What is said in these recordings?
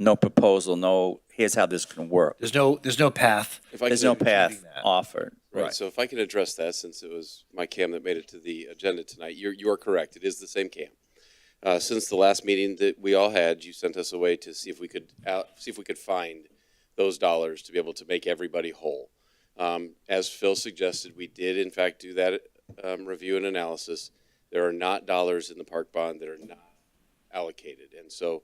no proposal, no, here's how this can work. There's no, there's no path. If I There's could- no path offered. Right, so if I could address that, since it was my cam that made it to the agenda tonight, you're, you are correct, it is the same cam. Uh, since the last meeting that we all had, you sent us away to see if we could out, see if we could find those dollars to be able to make everybody whole. Um, as Phil suggested, we did in fact do that, um, review and analysis. There are not dollars in the park bond that are not allocated. And so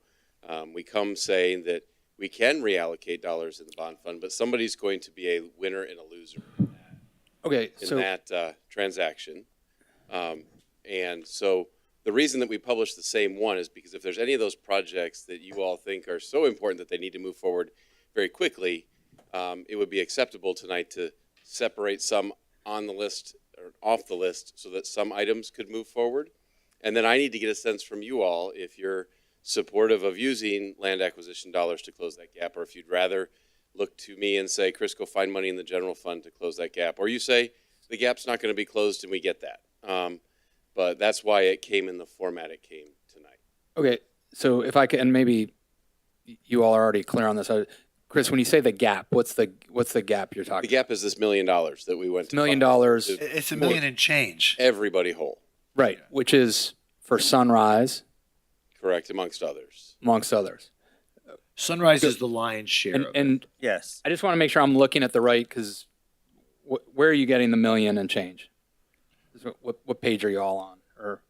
um, we come saying that we can reallocate dollars in the bond fund, but somebody's going to be a winner and a loser Okay, in so, that uh, transaction. Um, and so the reason that we publish the same one is because if there's any of those projects that you all think are so important that they need to move forward very quickly, um, it would be acceptable tonight to separate some on the list or off the list so that some items could move forward. And then I need to get a sense from you all if you're supportive of using land acquisition dollars to close that gap, or if you'd rather look to me and say, Chris, go find money in the general fund to close that gap. Or you say, the gap's not going to be closed and we get that. Um, but that's why it came in the format it came tonight. okay, so if I could, and maybe you all are already clear on this. I- Chris, when you say the gap, what's the, what's the gap you're The talking? gap is this million dollars that we went to. Million fund dollars, to It's a million and change. Everybody whole, right, which is for Sunrise correct, amongst others. amongst others. Sunrise is the lion's share And, of it. and Yes. I just want to make sure I'm looking at the right, because wh- where are you getting the million and change? Is what- What, what page are you all on? Or,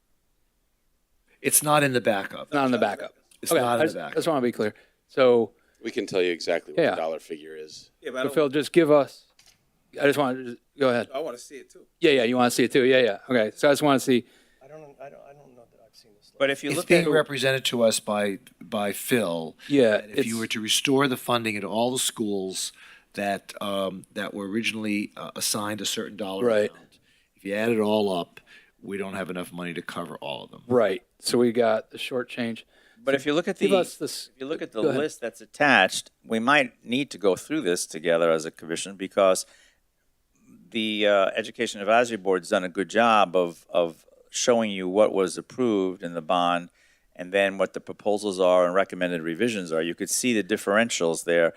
It's not in the backup. not in the backup? It's Okay, not I in the just- I backup. just want to be clear. So, We can tell you exactly what Yeah. the dollar figure is. so Phil, just give us, I just want to, go ahead. I want to see it too. Yeah, yeah, you want to see it too? Yeah, yeah. Okay, so I just want to see, I don't, I don't, I don't know that I've seen this. But if you It's look at, being represented to us by, by Phil. yeah. that if you it's- were to restore the funding at all the schools that, um, that were originally uh, assigned a certain dollar Right. amount, if you add it all up, we don't have enough money to cover all of them. Right. So we got the short change. but if you look at the, Give us if this. you look at the Go ahead. list that's attached, we might need to go through this together as a commission because the uh, Education Advisory Board's done a good job of, of showing you what was approved in the bond and then what the proposals are and recommended revisions are. You could see the differentials there.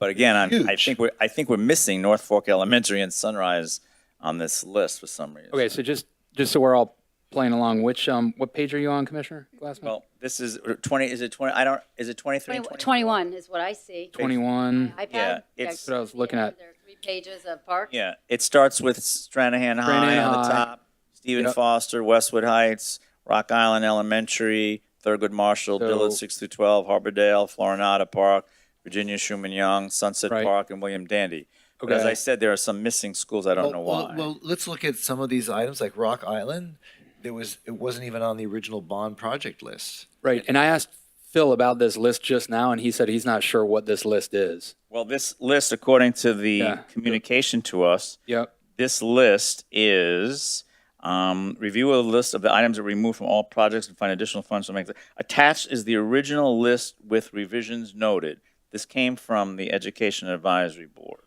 But again, I'm, I Huge. think we're, I think we're missing North Fork Elementary and Sunrise on this list for some reason. Okay. So just just so we're all playing along, which um what page are you on, Commissioner Glassman? Well, this is uh, 20, is it 20, I don't, is it 23? 21 is what I see. Twenty one. iPad? Yeah, it's- That's what I was looking at. There are three pages of park. Yeah, it starts with Stranahan High Stranahan on the High. top, Stephen Yep. Foster, Westwood Heights, Rock Island Elementary, Thurgood Marshall, So- Dillard 6 through 12, Harbordale, Florinata Park, Virginia Schumann Young, Sunset Right. Park, and William Dandy. But as Okay. I said, there are some missing schools. I don't know Well, why. Well, well, let's look at some of these items like Rock Island. There was it wasn't even on the original bond project list. Right. And I asked Phil about this list just now, and he said he's not sure what this list is. Well, this list, according to the Yeah. communication to us, Yep. this list is um, review of the list of the items that were removed from all projects and find additional funds to make. the- Attached is the original list with revisions noted. This came from the Education Advisory Board.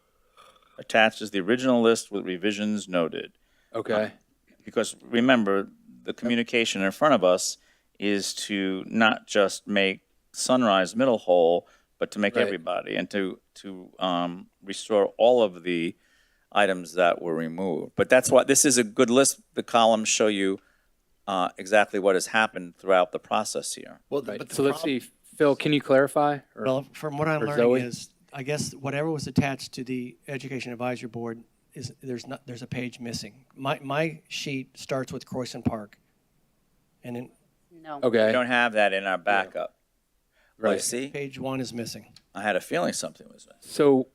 Attached is the original list with revisions noted. Okay. Because remember, the communication in front of us is to not just make Sunrise Middle whole, but to make Right. everybody and to, to um, restore all of the items that were removed. But that's why, this is a good list. The columns show you uh, exactly what has happened throughout the process here. Well, Right. but the so let's see. Phil, can you clarify? Or- Well, from what I'm or learning Zoe? is, I guess whatever was attached to the Education Advisory Board is there's not there's a page missing. My my sheet starts with Croissant Park, and then No. We okay. don't have that in our backup. Right. See, page one is missing. I had a feeling something was missing. So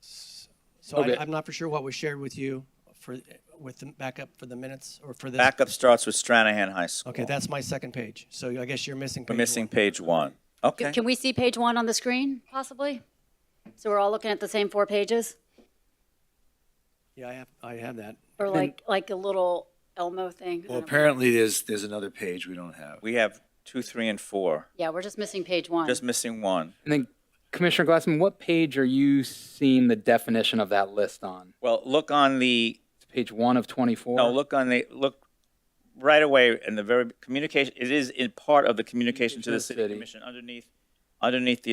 So Okay. I, I'm not for sure what was shared with you for with the backup for the minutes or for this. Backup starts with Stranahan High School. Okay, that's my second page. So I guess you're missing. We're page missing one. page one. Okay. Can we see page one on the screen, possibly? So we're all looking at the same four pages? Yeah, I have I have that. Or like, like a little Elmo thing? I well, don't know. apparently there's there's another page we don't have. We have two, three, and four. Yeah, we're just missing page one. Just missing one. and then Commissioner Glassman, what page are you seeing the definition of that list on? Well, look on the, It's page one of twenty four. no, look on the, look right away in the very communication, it is in part of the communication to the city commission underneath, underneath the